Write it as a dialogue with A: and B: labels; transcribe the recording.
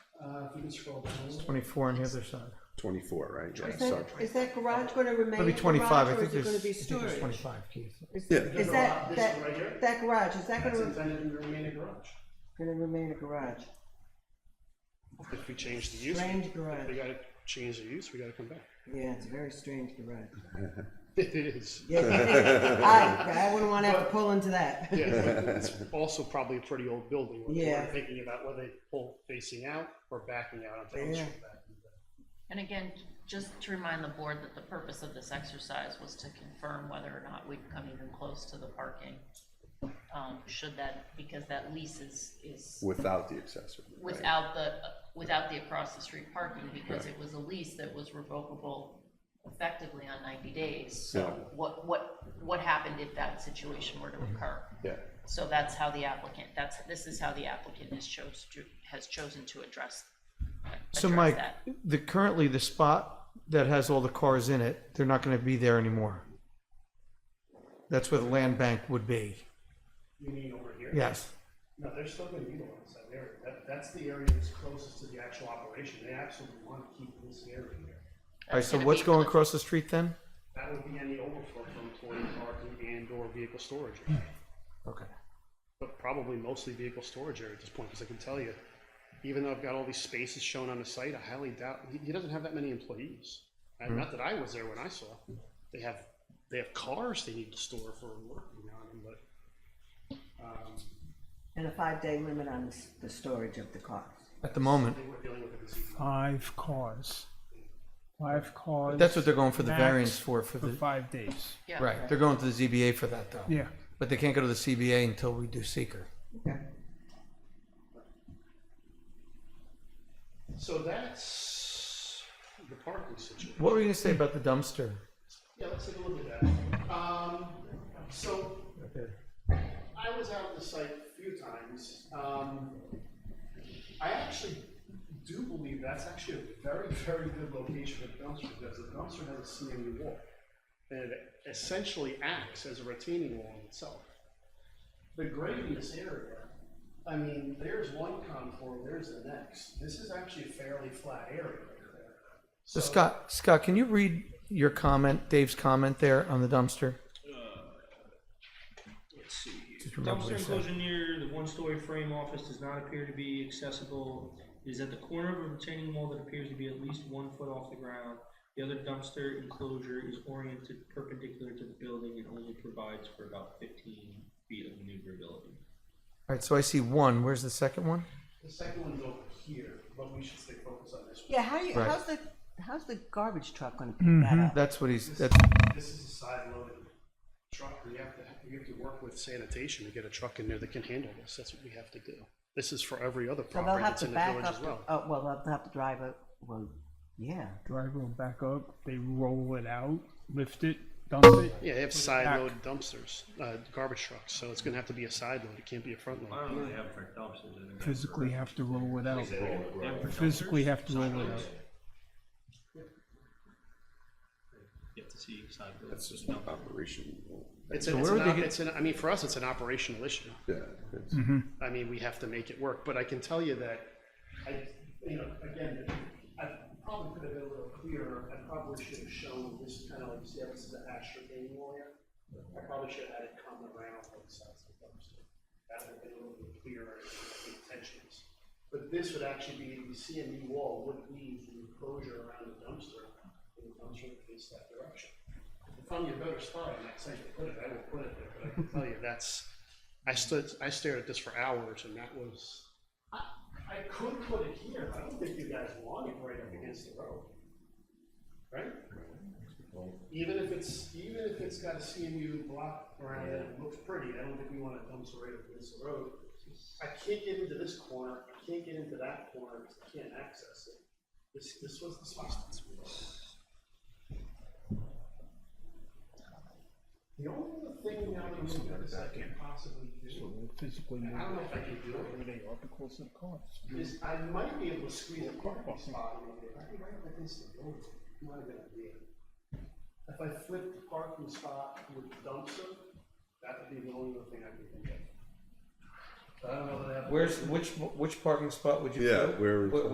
A: Uh, if you can scroll down.
B: Twenty-four on the other side.
C: Twenty-four, right? Yeah,
D: Is that,
C: sorry.
D: is that garage gonna remain
B: Maybe
D: a
B: twenty-five. I
D: garage or
B: think
D: is it
B: there's, I
D: gonna be
B: think there's
D: storage?
B: twenty-five, Keith.
D: Is,
C: Yeah.
D: is
A: The
D: that,
A: garage, this one right here?
D: that, that garage, is that
A: That's
D: gonna,
A: intended to remain a garage.
D: gonna remain a garage?
A: If we change the use,
D: Strange
A: we
D: garage,
A: gotta change the use, we gotta come back.
D: yeah, it's a very strange garage.
A: It is,
D: Yeah, I, I wouldn't wanna have to pull into that.
A: yeah, but it's also probably a pretty old building. when they
D: Yeah.
A: were Thinking about whether they pull facing out or backing out onto Elm
D: Yeah.
A: Street back in the day.
E: And again, just to remind the board that the purpose of this exercise was to confirm whether or not we'd come even close to the parking. Um, should that, because that lease is, is
C: Without the accessory. right?
E: without the, without the across the street parking, because it was a lease that was revocable effectively on ninety days. So
C: Yeah.
E: what, what, what happened if that situation were to
B: Mm-hmm.
E: occur?
C: Yeah,
E: So that's how the applicant, that's, this is how the applicant has chose to, has chosen to address,
B: So
E: address
B: Mike,
E: that.
B: the, currently the spot that has all the cars in it, they're not gonna be there anymore. That's where the land bank would be.
A: You mean over here?
B: Yes.
A: No, they're still gonna utilize that area. That, that's the area that's closest to the actual operation. They absolutely wanna keep this area here.
B: All right,
E: That's
B: so
E: gonna
B: what's
E: be for
B: going
E: the-
B: across the street then?
A: That would be any overflow from employee parking and or vehicle storage.
B: Okay.
A: But probably mostly vehicle storage area at this point, because I can tell you, even though I've got all these spaces shown on the site, I highly doubt, he, he doesn't have that many employees. And not that I was there when I saw. They have, they have cars they need to store for work, you know, I mean, but, um,
D: And a five-day limit on the, s- the storage of the cars.
B: At the moment,
A: they were dealing with it this evening.
F: five cars. Five cars.
B: that's what they're going for the
F: max
B: variance for, for
F: For
B: the,
F: five days.
E: Yeah.
B: right, they're going to the ZBA for that though.
F: Yeah.
B: But they can't go to the CBA until we do seeker.
D: Okay.
A: So that's the parking situation.
B: What were you gonna say about the dumpster?
A: Yeah, let's take a look at that. Um, so I was out on the site a few times. Um, I actually do believe that's actually a very, very good location for a dumpster because the dumpster has a CMU wall. And it essentially acts as a retaining wall in itself. The grade in this area, I mean, there's one contour, there's the next. This is actually a fairly flat area right there.
B: So Scott, Scott, can you read your comment, Dave's comment there on the dumpster?
G: Let's see.
B: Just remember what
G: Dumpster
B: he said.
G: enclosure near the one-story frame office does not appear to be accessible. It is at the corner of a retaining wall that appears to be at least one foot off the ground. The other dumpster enclosure is oriented perpendicular to the building and only provides for about fifteen feet of maneuverability.
B: All right, so I see one. Where's the second one?
A: The second one's over here, but we should stay focused on this one.
D: Yeah, how do you,
B: Right. Mm-hmm.
D: how's the, how's the garbage truck gonna pick that up?
B: That's what he's. That's
A: This is a side-loaded truck, we have to, we have to work with sanitation to get a truck in there that can handle this, that's what we have to do. This is for every other
D: So they'll
A: property
D: have
A: that's
D: to
A: in the village
D: back
A: as
D: up, the-
A: well.
D: oh, well, they'll have to drive up, well, yeah.
F: Driver will back up. They roll it out, lift it, dump it.
A: Yeah, they have
F: put it
A: side-load dumpsters, uh, garbage trucks, so it's gonna have to be a side load, it can't be a front
G: I
A: load.
G: don't really have for dumpsters. I think
F: back,
G: I-
F: Physically have to roll it out.
G: They have for
F: Physically
G: dumpsters?
F: have to roll it
G: Sideloads?
F: out.
G: You have to see side loads.
C: that's just not operational.
A: It's, an-
B: So
A: it's
B: where
A: an,
B: would they
A: op-
B: get-
A: it's an, I mean, for us, it's an operational issue.
C: Yeah, it's-
A: I mean, we have to make it work, but I can tell you that, I, you know, again, I probably could have been a little clearer, I probably should have shown this kind of like, see, how this is an ashtray thing lawyer. I probably should have had it come around like sides of the dumpster, that would have been a little bit clearer in the intentions. But this would actually be, the CME wall would be the enclosure around the dumpster, and the dumpster would face that direction. If I'm your better spot, I'm not saying to put it, I will put it there, but I can tell you, that's, I stood, I stared at this for hours, and that was. I, I could put it here, but I don't think you guys want it right up against the road. Right? Even if it's, even if it's got a CMU block around it, it looks pretty, I don't think we want it dumpster right up against the road. I can't get into this corner, I can't get into that corner, because I can't access it. This, this was the spot. The only other thing now that I'm looking at is I can possibly do.
F: Physically
A: I don't
F: roll
A: know if I can do
F: it.
A: it,
F: Where they are the closer the cars.
A: is I might be able to squeeze a parking spot in there, I can right up against the building, not a good idea. If I flip the parking spot with the dumpster, that would be the only other thing I could think of. But I don't know that I have.
B: where's which which parking spot would you?
C: Yeah,
B: put?
C: where-
B: Wh-